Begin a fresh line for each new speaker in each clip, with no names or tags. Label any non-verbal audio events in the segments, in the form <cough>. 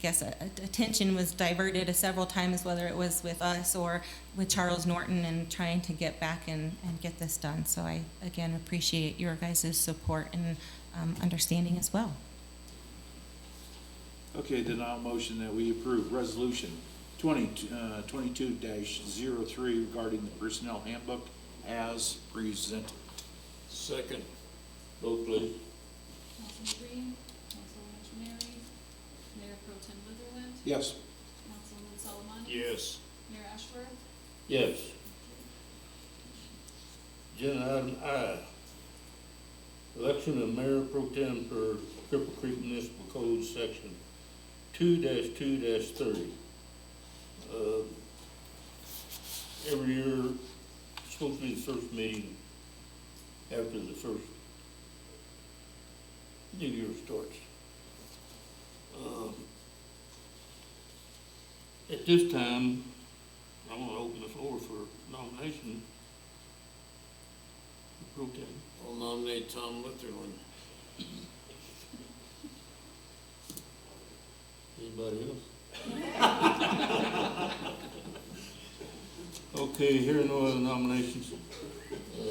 guess, uh, attention was diverted several times, whether it was with us or with Charles Norton and trying to get back and, and get this done. So I, again, appreciate your guys' support and um, understanding as well.
Okay, then I'll motion that we approve resolution twenty, uh, twenty-two dash zero three regarding the personnel handbook as presented.
Second. Vote please.
Councilman Green, Councilwoman Mary, Mayor Pro Tem Litherland,
Yes.
Councilman Solomani.
Yes.
Mayor Ashworth.
Yes. Agenda item I, election of mayor pro tem per Cripple Creek Municipal Code, section two two thirty. Every year, it's supposed to be the first meeting after the first new year starts. Um, At this time, I'm gonna open the floor for nomination. Pro tem.
I'll nominate Tom Litherland.
Anybody else? <laughs> Okay, here are no other nominations. Uh,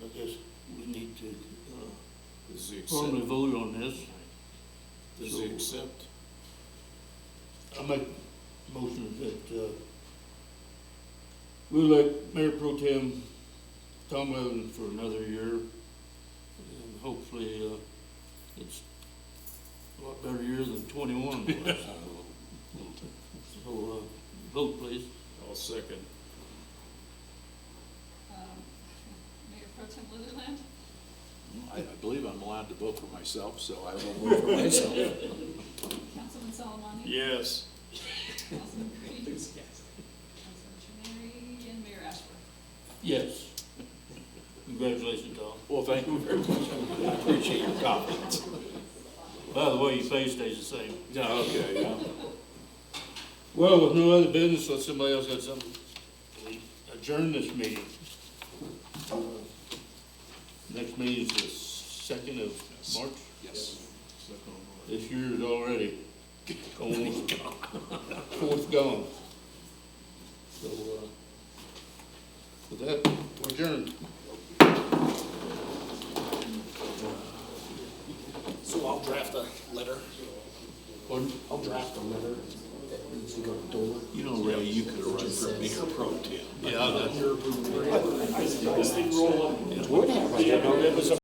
I guess we need to uh,
Does he
formally
accept?
vote on this.
Does he accept?
I make a motion that, uh, we elect Mayor Pro Tem Tom Levin for another year. And hopefully, uh, it's a lot better year than twenty-one was. So, uh, vote please.
I'll second.
Um, Mayor Pro Tem Litherland,
I, I believe I'm allowed to vote for myself, so I will vote for myself.
Councilman Solomani.
Yes.
Councilman Green. Councilwoman Mary, and Mayor Ashworth.
Yes. Congratulations, Tom.
Well, thank you very much. I appreciate your comments.
By the way, your face stays the same.
Yeah, okay, yeah.
Well, with no other business, unless somebody else has something, we adjourn this meeting. Uh, Next meeting is the second of March,
Yes.
this year is already going, fourth gone. So, uh, with that, we're adjourned.
So I'll draft a letter,
Pardon?
I'll draft a letter that needs to go to Dover.
You know, Ray, you could have run for a mayor pro tem.
Yeah, I got you.
Would have, I didn't know it was a